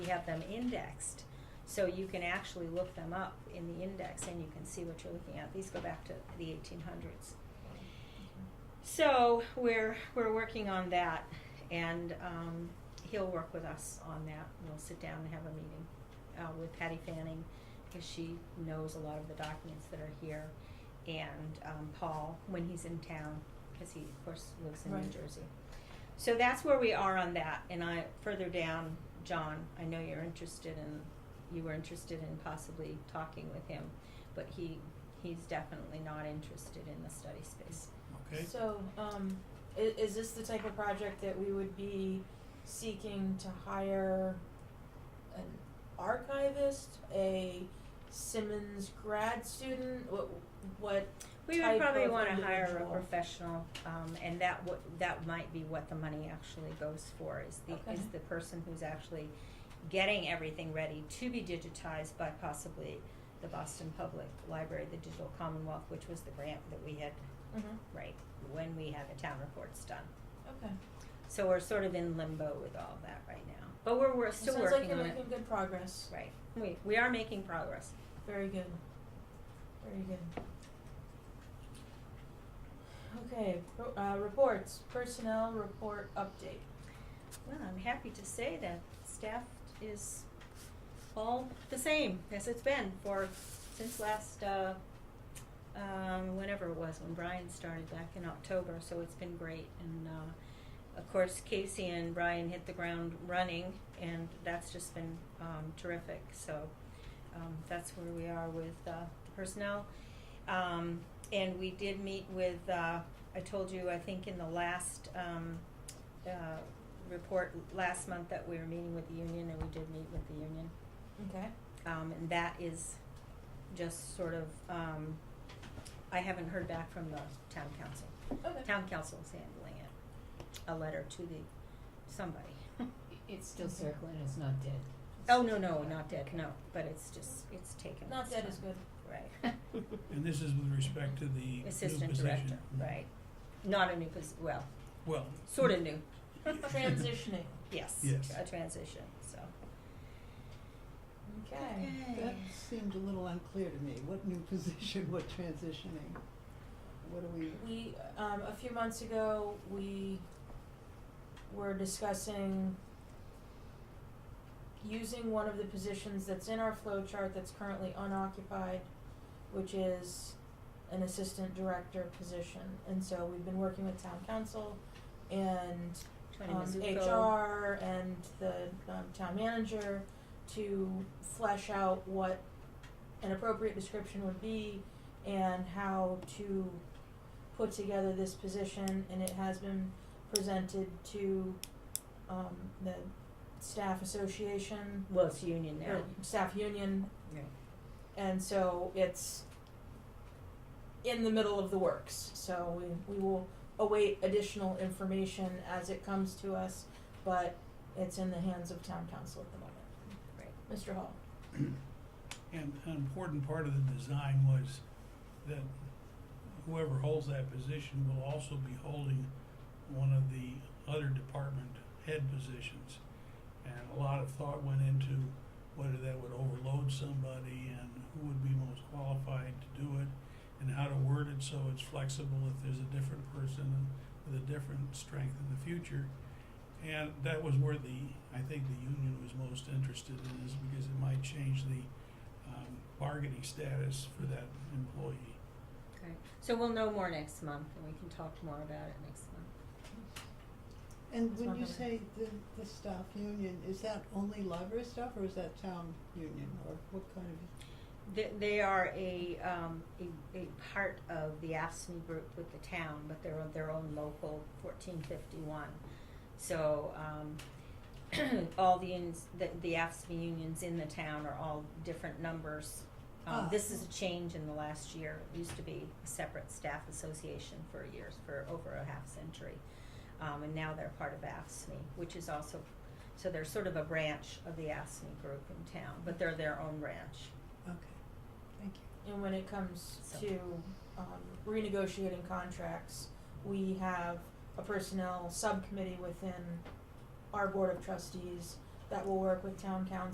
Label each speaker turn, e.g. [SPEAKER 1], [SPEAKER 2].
[SPEAKER 1] have them indexed, so you can actually look them up in the index and you can see what you're looking at. These go back to the eighteen hundreds. So we're we're working on that, and um, he'll work with us on that. We'll sit down and have a meeting uh, with Patty Fanning because she knows a lot of the documents that are here, and um, Paul when he's in town because he of course lives in New
[SPEAKER 2] Right.
[SPEAKER 1] Jersey. So that's where we are on that. And I further down, John, I know you're interested in you were interested in possibly talking with him, but he he's definitely not interested in the study space.
[SPEAKER 3] Okay,
[SPEAKER 2] So, um, i- is this the type of project that we would be seeking to hire an archivist, a Simmons grad student, what, what,
[SPEAKER 1] We would
[SPEAKER 2] type
[SPEAKER 1] probably
[SPEAKER 2] of
[SPEAKER 1] want to hire a
[SPEAKER 2] individual.
[SPEAKER 1] professional, um, and that would, that might be what the money actually goes for, is the, is
[SPEAKER 2] Okay.
[SPEAKER 1] the person who's actually getting everything ready to be digitized by possibly the Boston Public Library, the Digital Commonwealth, which was the grant that we had,
[SPEAKER 2] mhm,
[SPEAKER 1] right, when we had the town reports done.
[SPEAKER 2] okay.
[SPEAKER 1] So we're sort of in limbo with all of that right now, but we're, we're still
[SPEAKER 2] sounds like
[SPEAKER 1] working
[SPEAKER 2] you're
[SPEAKER 1] on it.
[SPEAKER 2] making good progress,
[SPEAKER 1] Right, we, we are making progress.
[SPEAKER 2] very good, very good. Okay, pro- uh, reports, personnel report update.
[SPEAKER 1] Well, I'm happy to say that staff is all the same as it's been for, since last, uh, um, whenever it was, when Brian started back in October, so it's been great. And, uh, of course, Casey and Brian hit the ground running, and that's just been, um, terrific, so, um, that's where we are with, uh, the personnel. Um, and we did meet with, uh, I told you, I think in the last, um, uh, report last month that we were meeting with the union, and we did meet with the union.
[SPEAKER 2] Okay,
[SPEAKER 1] Um, and that is just sort of, um, I haven't heard back from the town council.
[SPEAKER 2] okay.
[SPEAKER 1] Town council is handling it, a letter to the, somebody.
[SPEAKER 4] It's still circling, it's not dead.
[SPEAKER 1] Oh, no, no, not dead, no, but it's just, it's taken.
[SPEAKER 2] Not
[SPEAKER 1] its
[SPEAKER 2] dead is
[SPEAKER 1] time.
[SPEAKER 2] good.
[SPEAKER 1] Right.
[SPEAKER 3] and this is with respect to the new
[SPEAKER 1] Assistant
[SPEAKER 3] position.
[SPEAKER 1] director, right. Not a new posi- well,
[SPEAKER 3] Well.
[SPEAKER 1] sort of new,
[SPEAKER 2] Transitioning.
[SPEAKER 1] yes,
[SPEAKER 3] Yes.
[SPEAKER 1] a transition, so.
[SPEAKER 2] Okay.
[SPEAKER 5] That seemed a little unclear to me. What new position, what transitioning? What are we,
[SPEAKER 2] We, um, a few months ago, we were discussing using one of the positions that's in our flow chart that's currently unoccupied, which is an assistant director position. And so we've been working with town council and
[SPEAKER 1] Tony
[SPEAKER 2] um,
[SPEAKER 1] Mizuko.
[SPEAKER 2] HR and the um, town manager to flesh out what an appropriate description would be and how to put together this position, and it has been presented to um, the staff association,
[SPEAKER 1] Well, it's union now.
[SPEAKER 2] or staff union,
[SPEAKER 1] Right.
[SPEAKER 2] and so it's in the middle of the works. So we, we will await additional information as it comes to us, but it's in the hands of town council at the moment.
[SPEAKER 1] Right.
[SPEAKER 2] Mr. Hall?
[SPEAKER 3] And an important part of the design was that whoever holds that position will also be holding one of the other department head positions. And a lot of thought went into whether that would overload somebody and who would be most qualified to do it and how to word it so it's flexible if there's a different person with a different strength in the future. And that was where the, I think the union was most interested in is because it might change the um, bargaining status for that employee.
[SPEAKER 1] Okay, so we'll know more next month and we can talk more about it next month.
[SPEAKER 5] and
[SPEAKER 2] It's
[SPEAKER 5] when
[SPEAKER 2] not
[SPEAKER 5] you
[SPEAKER 2] gonna-
[SPEAKER 5] say the, the staff union, is that only library staff or is that town union or what kind of?
[SPEAKER 1] They, they are a, um, a, a part of the AFSMI group with the town, but they're on their own local fourteen fifty-one. So, um, all the, unions- the, the AFSMI unions in the town are all different numbers. Um,
[SPEAKER 5] Ah.
[SPEAKER 1] this is a change in the last year. It used to be a separate staff association for years, for over a half century. Um, and now they're part of AFSMI, which is also, so they're sort of a branch of the AFSMI group in town, but they're their own branch.
[SPEAKER 5] Okay, thank you.
[SPEAKER 2] And when it comes
[SPEAKER 1] So-
[SPEAKER 2] to um, renegotiating contracts, we have a personnel subcommittee within our board of trustees that will work with town council